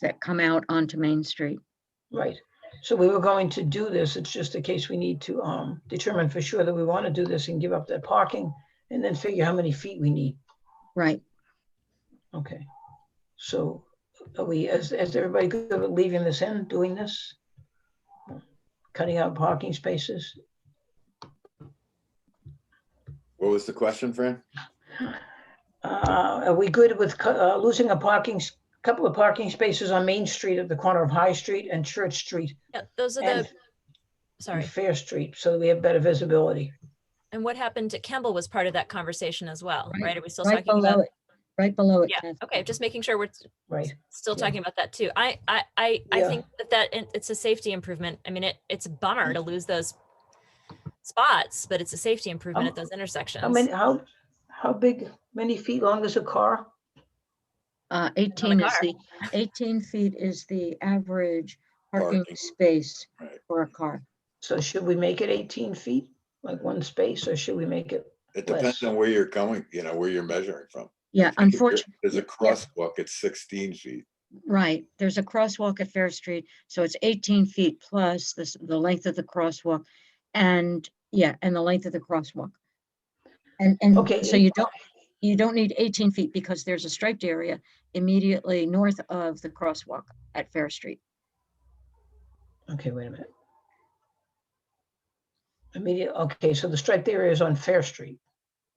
that come out onto Main Street. Right. So we were going to do this. It's just a case we need to um, determine for sure that we want to do this and give up that parking and then figure how many feet we need. Right. Okay. So are we, is, is everybody good with leaving this in, doing this? Cutting out parking spaces? What was the question, Fran? Uh, Are we good with cu- uh, losing a parking, s- couple of parking spaces on Main Street at the corner of High Street and Church Street Yeah, those are and the, and sorry. Fair Street so that we have better visibility? And what happened to Campbell was part of that conversation as well, Right, right? Are we still Right talking below about? it. Right below it. Yeah, Kath. okay, just making sure we're s- Right. still Yeah. talking about that too. I, I, I, I Yeah. think that that, it- it's a safety improvement. I mean, it, it's a Mm-hmm. bummer to lose those spots, but it's a safety improvement Oh, Um, at those intersections. How many, how, how big, many feet long is a car? Uh, eighteen is car. the, eighteen feet is the average parking Parking. space Right. for a car. So should we make it 18 feet, like one space, or should we make it? It Less. depends on where you're going, you know, where you're measuring from. Yeah, If you're- unfortunately, There's a yeah. crosswalk at sixteen feet. right. There's a crosswalk at Fair Street, so it's eighteen feet plus this, the length of the crosswalk. And, yeah, and the length of the crosswalk. And, Okay. and Mm, so you don't, you don't need eighteen feet because there's a striped area immediately north of the crosswalk at Fair Street. Okay, wait a minute. Immediate, okay, so the striped area is on Fair Street,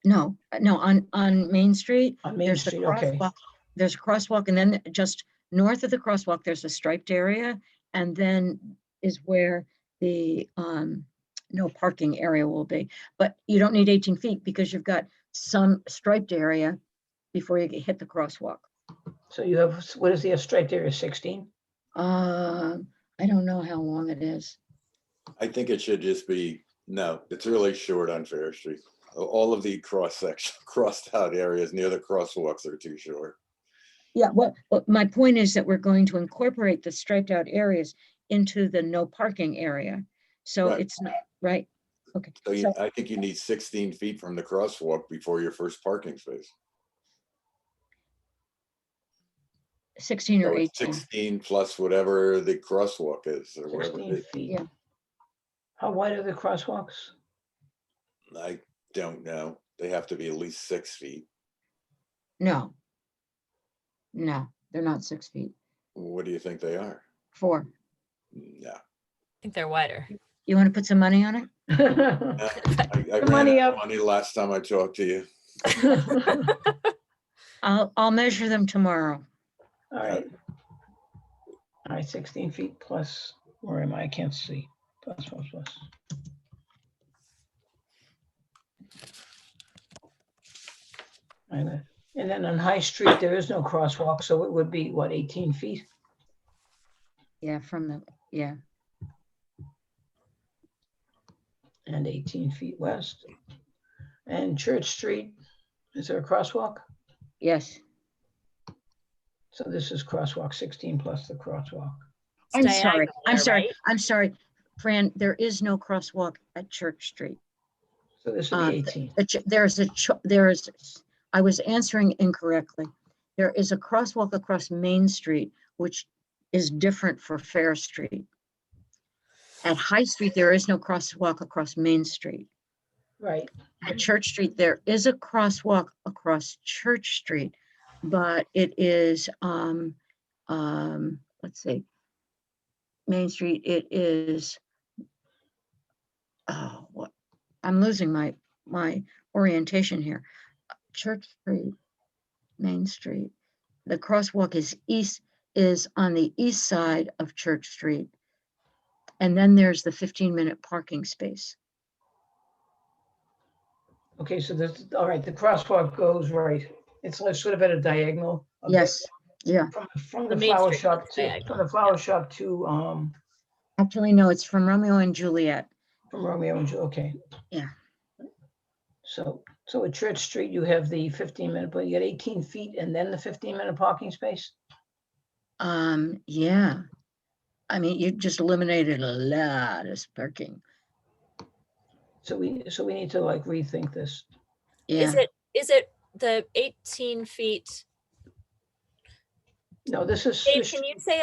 No, uh, no, on, on Main Street, on Main there's the Street, okay. crosswalk. There's a crosswalk and then just north of the crosswalk, there's a striped area. And then is where the, um, no parking area will be. But you don't need eighteen feet because you've got some striped area before you get- hit the crosswalk. So you have, what is the striped area, 16? Um, I don't know how long it is. I think it should just be, no, it's really short on Fair Street. All of the cross section, crossed out areas near the crosswalks are too short. Yeah, well, well, my point is that we're going to incorporate the striped out areas into the no parking area. So Right. it's not, right? Okay, So you, so, I think you need sixteen feet from the crosswalk before your first parking space. sixteen or So it's eighteen, Sixteen plus whatever the crosswalk is or whatever. 16 it- feet. yeah. How wide are the crosswalks? I don't know. They have to be at least six feet. no. No, they're not six feet, What do you think they are? four. No. I think they're wider. You want to put some money on it? No, I I The ran money out of up. money last time I talked to you. All I'll, I'll measure them tomorrow. right. All right, 16 feet plus, where am I? I can't see. Plus, plus, plus. And then- and then on High Street, there is no crosswalk, so it would be, what, 18 feet? Yeah, from the, yeah, and 18 feet west. And Church Street, is there a crosswalk? yes. So this is crosswalk 16 plus the crosswalk. I'm Stay sorry, angle I'm there, sorry, right? I'm sorry. Fran, there is no crosswalk at Church Street. So this would Uh, be 18. The ch- There's a, cho- there is, I was answering incorrectly. There is a crosswalk across Main Street, which is different for Fair Street. At High Street, there is no crosswalk across Main Street. Right, At Church Street, there is a crosswalk across Church Street, but it is, um, um, let's see. Main Street, it is. Oh, what, I'm losing my, my orientation here. Church Street, Main Street. The crosswalk is east, is on the east side of Church Street. And then there's the fifteen minute parking space. okay, so this, all right, the crosswalk goes right. It's like sort of at a diagonal. a bit Yes, yeah. From, from the The Main flower Street shop looks to, diagonal, from the flower shop to, um, Actually, no, it's from Romeo and Juliet. from Romeo and Juliet, okay. Yeah. So, so at Church Street, you have the 15 minute, but you get 18 feet and then the 15 minute parking space? Um, yeah. I mean, you just eliminated a lot of parking. So we, so we need to like rethink this. Yeah, Is it, is it the eighteen feet? No, this is. Dave, this- can you say